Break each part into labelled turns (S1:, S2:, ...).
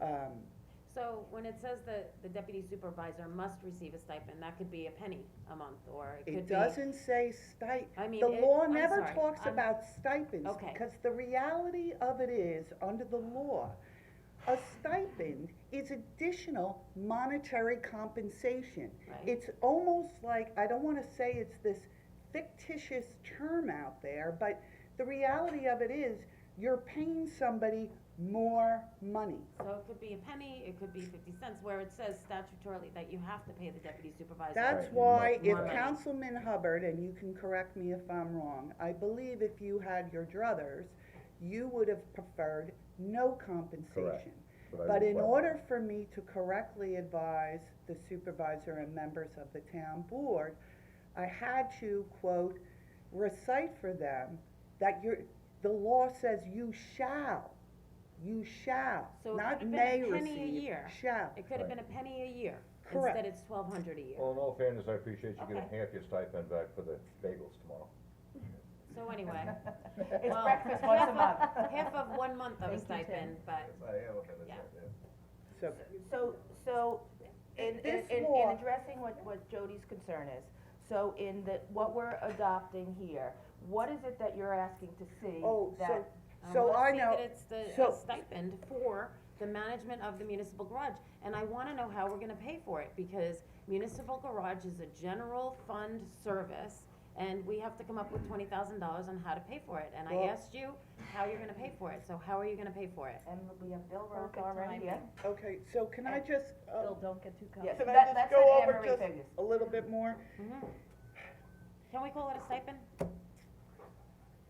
S1: um,
S2: So when it says that the deputy supervisor must receive a stipend, that could be a penny a month, or it could
S1: it
S2: be.
S1: doesn't say stipend.
S2: I mean,
S1: The
S2: it-
S1: law
S2: I'm
S1: never
S2: sorry,
S1: talks
S2: I'm-
S1: about stipends,
S2: Okay.
S1: because the reality of it is, under the law, a stipend is additional monetary compensation.
S2: Right.
S1: It's almost like, I don't wanna say it's this fictitious term out there, but the reality of it is, you're paying somebody more money.
S2: So it could be a penny, it could be fifty cents, where it says statutorily that you have to pay the deputy supervisor.
S1: That's
S3: Right,
S1: why
S2: you
S1: if
S2: might- Right.
S1: Councilman Hubbard, and you can correct me if I'm wrong, I believe if you had your druthers, you would have preferred no compensation.
S3: But I
S1: But in
S3: request-
S1: order for me to correctly advise the supervisor and members of the town board, I had to quote, recite for them that you're, the law says you shall, you shall,
S2: So it
S1: not
S2: could've been a
S1: may receive, shall.
S2: penny a year. It could have been a penny a year,
S1: Correct.
S2: instead it's twelve hundred a year.
S3: Well, in all fairness, I appreciate you getting
S2: Okay.
S3: half your stipend back for the bagels tomorrow.
S2: So anyway,
S4: It's
S2: Well,
S4: breakfast once a
S2: half
S4: month.
S2: of- half of one month of a
S4: Thank you, Tim.
S2: stipend, but, Yeah.
S1: So
S4: So, so, in, in,
S1: This
S4: in- in
S1: law-
S4: addressing what, what Jody's concern is, so in the, what we're adopting here, what is it that you're asking to see
S1: Oh, so,
S4: that?
S1: so I
S2: Um, I
S1: know,
S2: wanna see that it's the,
S1: so-
S2: a stipend for the management of the municipal garage, and I wanna know how we're gonna pay for it, because municipal garage is a general fund service, and we have to come up with twenty thousand dollars on how to pay for it, and I
S1: Well-
S2: asked you how you're gonna pay for it, so how are you gonna pay for it?
S4: And we have Bill Rock
S5: Perfect
S4: already, yeah?
S5: timing.
S1: okay, so can I just, uh,
S5: Bill, don't get too
S4: Yes,
S5: comfortable.
S1: Can I
S4: that,
S1: just
S4: that's
S1: go
S4: what
S1: over
S4: Anne Marie
S1: just-
S4: figures.
S1: a little bit more?
S2: Mhm. Can we call it a stipend?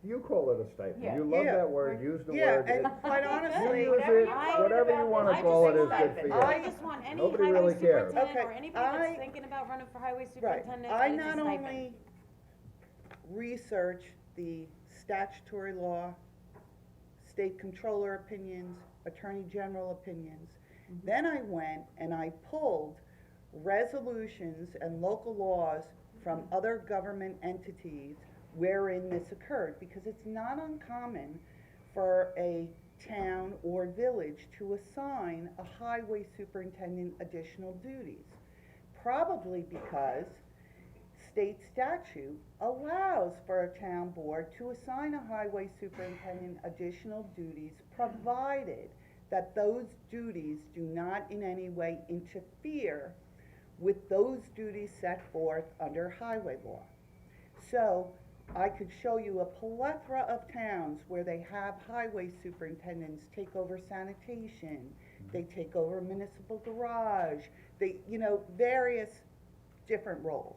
S3: You call it a stipend,
S4: Yeah.
S3: you love
S1: Yeah.
S3: that word, use the
S1: Yeah,
S3: word.
S1: and
S3: it-
S1: quite honestly,
S3: You use
S4: whatever
S3: it,
S4: you call it
S3: whatever you
S4: about
S3: wanna
S4: this, I
S3: call it
S4: just
S3: is
S4: say
S3: good for you.
S1: stipend.
S2: I just want any
S3: Nobody
S2: highway
S3: really cares.
S2: superintendent or
S1: Okay,
S2: anybody that's
S1: I-
S2: thinking about running for highway
S1: right,
S2: superintendent, that
S1: I
S2: it's a
S1: not
S2: stipend.
S1: only research the statutory law, state comptroller opinions, attorney general opinions, then I went and I pulled resolutions and local laws from other government entities wherein this occurred, because it's not uncommon for a town or village to assign a highway superintendent additional duties. Probably because state statute allows for a town board to assign a highway superintendent additional duties, provided that those duties do not in any way interfere with those duties set forth under highway law. So, I could show you a plethora of towns where they have highway superintendents take over sanitation, they take over municipal garage, they, you know, various different roles.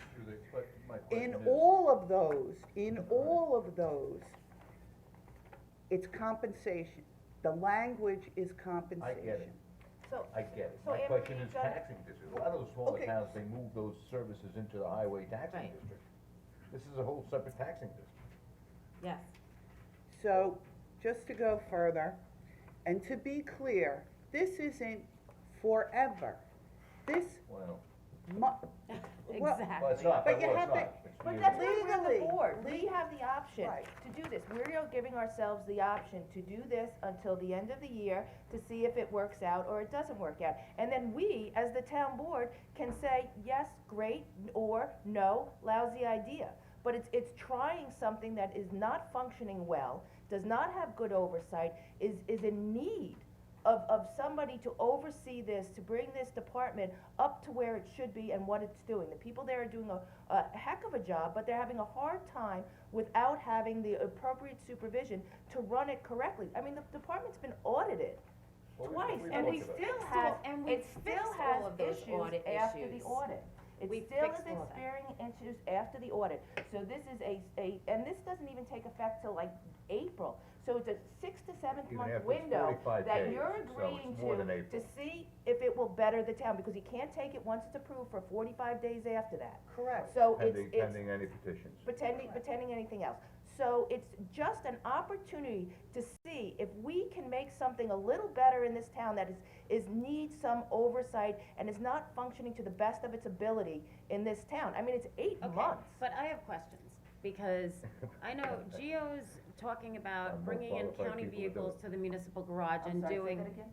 S1: In all of those, in all of those, it's compensation. The language is compensation.
S4: So,
S3: I get it,
S4: So
S3: my
S4: Anne
S3: question
S4: Marie,
S3: is
S4: you've got-
S3: taxing district, a lot of those smaller
S1: Okay.
S3: towns, they move those services into the highway taxing
S2: Right.
S3: district. This is a whole separate taxing district.
S2: Yes,
S1: So, just to go further, and to be clear, this isn't forever. This
S3: Well,
S1: mu- well,
S2: exactly.
S3: well, it's not,
S1: But
S3: but
S1: you
S3: well,
S1: have
S3: it's
S1: to-
S3: not. It's
S4: But
S3: neither.
S4: that's where we're on the
S1: Legally.
S4: board, we have the option
S1: Right.
S4: to do this, we are giving ourselves the option to do this until the end of the year to see if it works out or it doesn't work out. And then we, as the town board, can say, yes, great, or no, lousy idea. But it's, it's trying something that is not functioning well, does not have good oversight, is, is in need of, of somebody to oversee this, to bring this department up to where it should be and what it's doing. The people there are doing a, a heck of a job, but they're having a hard time without having the appropriate supervision to run it correctly. I mean, the department's been audited
S3: Well, we-
S4: twice,
S3: we
S4: and
S3: looked
S4: we
S3: at it.
S4: still
S2: So-
S4: have,
S2: and we
S4: it still
S2: fixed
S4: has
S2: all of those
S4: issues
S2: audit
S4: after the
S2: issues.
S4: audit. It
S2: We
S4: still is
S2: fixed all of that.
S4: experiencing issues after the audit. So this is a, a, and this doesn't even take effect till like April. So it's a six to seventh
S3: Even
S4: month
S3: after it's
S4: window
S3: 45
S4: that
S3: days,
S4: you're
S3: so it's
S4: agreeing
S3: more
S4: to,
S3: than April.
S4: to see if it will better the town, because you can't take it once it's approved for forty-five days after that.
S1: correct.
S4: So it's,
S3: Pending,
S4: it's,
S3: pending any petitions.
S4: pretending, pretending anything else. So it's just an opportunity to see if we can make something a little better in this town that is, is needs some oversight and is not functioning to the best of its ability in this town. I mean, it's eight
S2: Okay,
S4: months.
S2: but I have questions, because I know Geo's talking
S3: I'm
S2: about
S3: more
S2: bringing in
S3: qualified
S2: county
S3: people to do
S2: vehicles to the municipal garage
S4: I'm
S2: and
S4: sorry, say
S2: doing.
S4: that again?